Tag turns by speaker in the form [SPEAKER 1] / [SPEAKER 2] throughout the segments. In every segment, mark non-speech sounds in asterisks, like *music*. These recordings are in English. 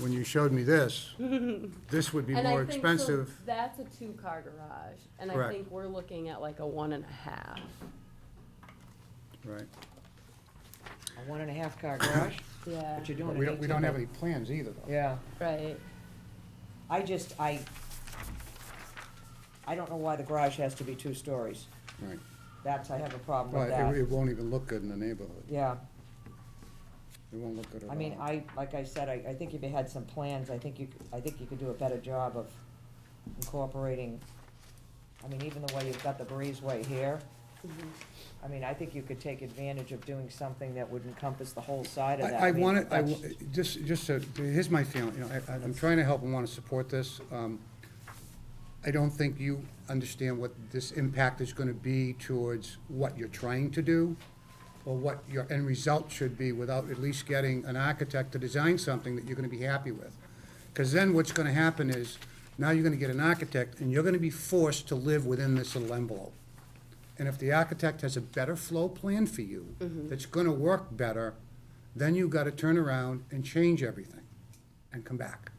[SPEAKER 1] when you showed me
[SPEAKER 2] *laughs*
[SPEAKER 1] this, this would be
[SPEAKER 2] And I
[SPEAKER 1] more
[SPEAKER 2] think, so
[SPEAKER 1] expensive.
[SPEAKER 2] That's a two-car garage, and I
[SPEAKER 1] Correct.
[SPEAKER 2] think we're looking at like a one and a half.
[SPEAKER 1] Right.
[SPEAKER 3] A one and a half car garage,
[SPEAKER 2] Yeah,
[SPEAKER 3] but you're doing
[SPEAKER 1] But
[SPEAKER 3] an
[SPEAKER 1] we don't, we don't have any
[SPEAKER 3] eighteen-
[SPEAKER 1] plans either, though.
[SPEAKER 3] Yeah,
[SPEAKER 2] right.
[SPEAKER 3] I just, I, I don't know why the garage has to be two stories.
[SPEAKER 1] Right.
[SPEAKER 3] That's, I have a problem with
[SPEAKER 1] Well, it,
[SPEAKER 3] that.
[SPEAKER 1] it won't even look good in the neighborhood.
[SPEAKER 3] Yeah,
[SPEAKER 1] It won't look good at all.
[SPEAKER 3] I mean, I, like I said, I, I think if you had some plans, I think you, c- I think you could do a better job of incorporating, I mean, even the way you've got the breezeway here,
[SPEAKER 2] Mhm.
[SPEAKER 3] I mean, I think you could take advantage of doing something that would encompass the whole side of that.
[SPEAKER 1] I, I
[SPEAKER 3] mean,
[SPEAKER 1] wanna, I,
[SPEAKER 3] that's-
[SPEAKER 1] w- just, just, so- here's my feeling, you know, I, I'm trying to help and wanna support this. Um, I don't think you understand what this impact is gonna be towards what you're trying to do, or what your end result should be without at least getting an architect to design something that you're gonna be happy with. Cause then what's gonna happen is, now you're gonna get an architect, and you're gonna be forced to live within this little envelope. And if the architect has a better flow plan for you, that's gonna work better, then you gotta turn around and change everything and come back.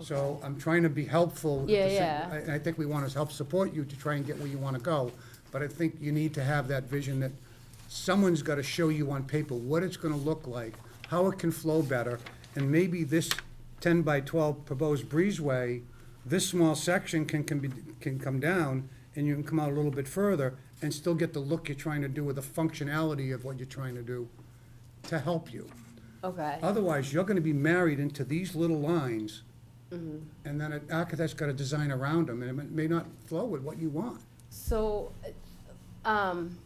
[SPEAKER 1] So I'm trying to be helpful. at the
[SPEAKER 2] Yeah,
[SPEAKER 1] same-
[SPEAKER 2] yeah.
[SPEAKER 1] I- And I think we wanna help support you to try and get where you wanna go, but I think you need to have that vision that someone's gotta show you on paper what it's gonna look like, how it can flow better, and maybe this ten by twelve proposed breezeway, this small section can, can be, can come down, and you can come out a little bit further, and still get the look you're trying to do with the functionality of what you're trying to do to help you.
[SPEAKER 2] Okay,
[SPEAKER 1] Otherwise, you're gonna be married into these little lines,
[SPEAKER 2] Mm-hmm.
[SPEAKER 1] and then an architect's gotta design around them, and it may not flow with what you want.
[SPEAKER 2] so, um,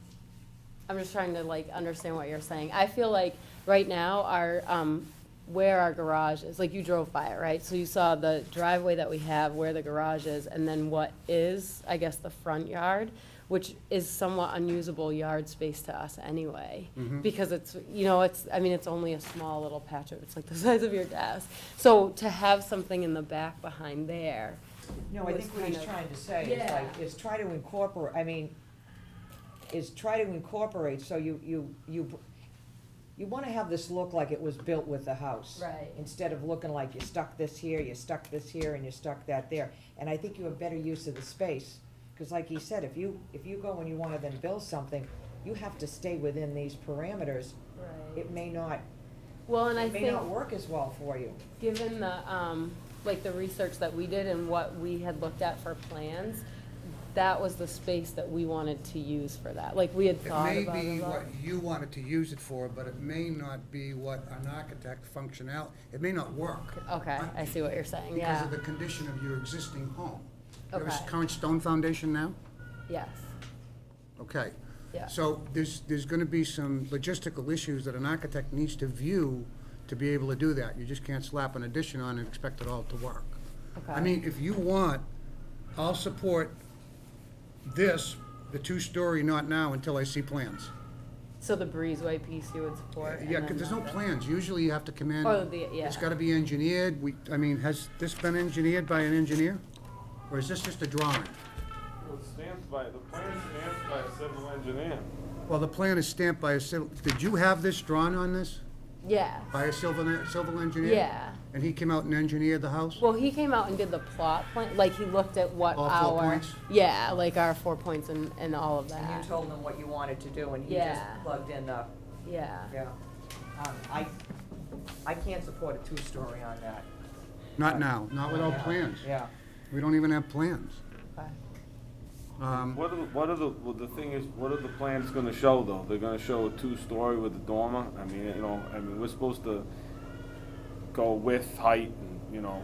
[SPEAKER 2] I'm just trying to like understand what you're saying. I feel like right now, our, um, where our garage is, like you drove by it, right? So you saw the driveway that we have, where the garage is, and then what is, I guess, the front yard, which is somewhat unusable yard space to us anyway. Because it's, you know, it's, I mean, it's only a small little patch of, it's like the *laughs* size of your desk. So to have something in the back behind there,
[SPEAKER 3] No, I
[SPEAKER 2] was
[SPEAKER 3] think what
[SPEAKER 2] kind
[SPEAKER 3] he's
[SPEAKER 2] of-
[SPEAKER 3] trying to say is
[SPEAKER 2] Yeah.
[SPEAKER 3] like, is try to incorporate, I mean, is try to incorporate, so you, you, you, you wanna have this look like it was built with the house.
[SPEAKER 2] Right.
[SPEAKER 3] Instead of looking like you stuck this here, you stuck this here, and you stuck that there. And I think you have better use of the space, cause like he said, if you, if you go and you wanna then build something, you have to stay within these parameters.
[SPEAKER 2] Right.
[SPEAKER 3] It may not,
[SPEAKER 2] Well, and I
[SPEAKER 3] it may
[SPEAKER 2] think,
[SPEAKER 3] not work as well for you.
[SPEAKER 2] given the, um, like the research that we did and what we had looked at for plans, that was the space that we wanted to use for that, like we had
[SPEAKER 1] It
[SPEAKER 2] thought
[SPEAKER 1] may
[SPEAKER 2] about
[SPEAKER 1] be
[SPEAKER 2] it all.
[SPEAKER 1] what you wanted to use it for, but it may not be what an architect functional, it may not work.
[SPEAKER 2] Okay, I see what you're saying,
[SPEAKER 1] Because
[SPEAKER 2] yeah,
[SPEAKER 1] of the condition of your existing home. You have a s-
[SPEAKER 2] Okay.
[SPEAKER 1] current stone foundation now?
[SPEAKER 2] yes,
[SPEAKER 1] Okay.
[SPEAKER 2] Yeah.
[SPEAKER 1] So there's, there's gonna be some logistical issues that an architect needs to view to be able to do that. You just can't slap an addition on and expect it all to work. I
[SPEAKER 2] Okay.
[SPEAKER 1] mean, if you want, I'll support this, the two-story, not now, until I see plans.
[SPEAKER 2] so the breezeway piece you would support? and
[SPEAKER 1] Yeah,
[SPEAKER 2] then
[SPEAKER 1] because there's
[SPEAKER 2] the-
[SPEAKER 1] no plans, usually you have to come in.
[SPEAKER 2] Oh, the- yeah.
[SPEAKER 1] It's gotta be engineered, we, I mean, has this been engineered by an engineer? Or is this just a drawing?
[SPEAKER 4] Well, it's stamped by, the plan stamped by a civil engineer.
[SPEAKER 1] Well, the plan is stamped by a civil, did you have this drawn on this,
[SPEAKER 2] Yeah,
[SPEAKER 1] by a civil, civil engineer?
[SPEAKER 2] yeah,
[SPEAKER 1] And he came out and engineered the house?
[SPEAKER 2] well, he came out and did the plot plan, like he looked at what
[SPEAKER 1] All
[SPEAKER 2] our.
[SPEAKER 1] four points?
[SPEAKER 2] Yeah, like our four points and, and all of
[SPEAKER 3] And you
[SPEAKER 2] that,
[SPEAKER 3] told him what you wanted to do, and he just
[SPEAKER 2] Yeah.
[SPEAKER 3] plugged in the
[SPEAKER 2] yeah,
[SPEAKER 3] Yeah, um, I, I can't support a two-story on that.
[SPEAKER 1] Not now, not without
[SPEAKER 3] Yeah,
[SPEAKER 1] plans.
[SPEAKER 3] uh, Yeah,
[SPEAKER 1] We don't even have plans.
[SPEAKER 2] okay,
[SPEAKER 1] Um,
[SPEAKER 4] What are, the- what are the, well, the thing is, what are the plans gonna show though? They're gonna show a two-story with a dormer? I mean, you know, I mean, we're supposed to go width, height, and, you know,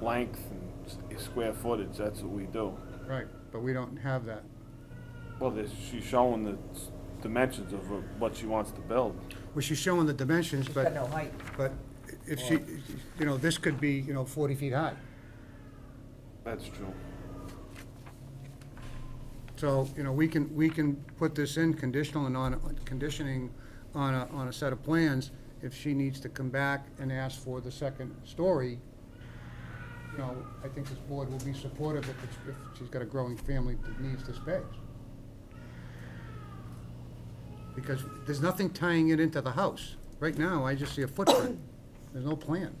[SPEAKER 4] length and s- square footage, that's what we do.
[SPEAKER 1] Right, but we don't have that.
[SPEAKER 4] Well, there's, she's showing the s- dimensions of what- what she wants to build.
[SPEAKER 1] Well, she's showing the dimensions,
[SPEAKER 3] she's got
[SPEAKER 1] but,
[SPEAKER 3] no height.
[SPEAKER 1] but if she, you know, this could be, you know, forty feet high.
[SPEAKER 4] That's true.
[SPEAKER 1] So, you know, we can, we can put this in conditional and on, conditioning on a, on a set of plans. If she needs to come back and ask for the second story, you know, I think this board will be supportive if, it's- if she's got a growing family that needs the space. Because there's nothing tying it into the house. Right now, I just see a footprint. There's no plan.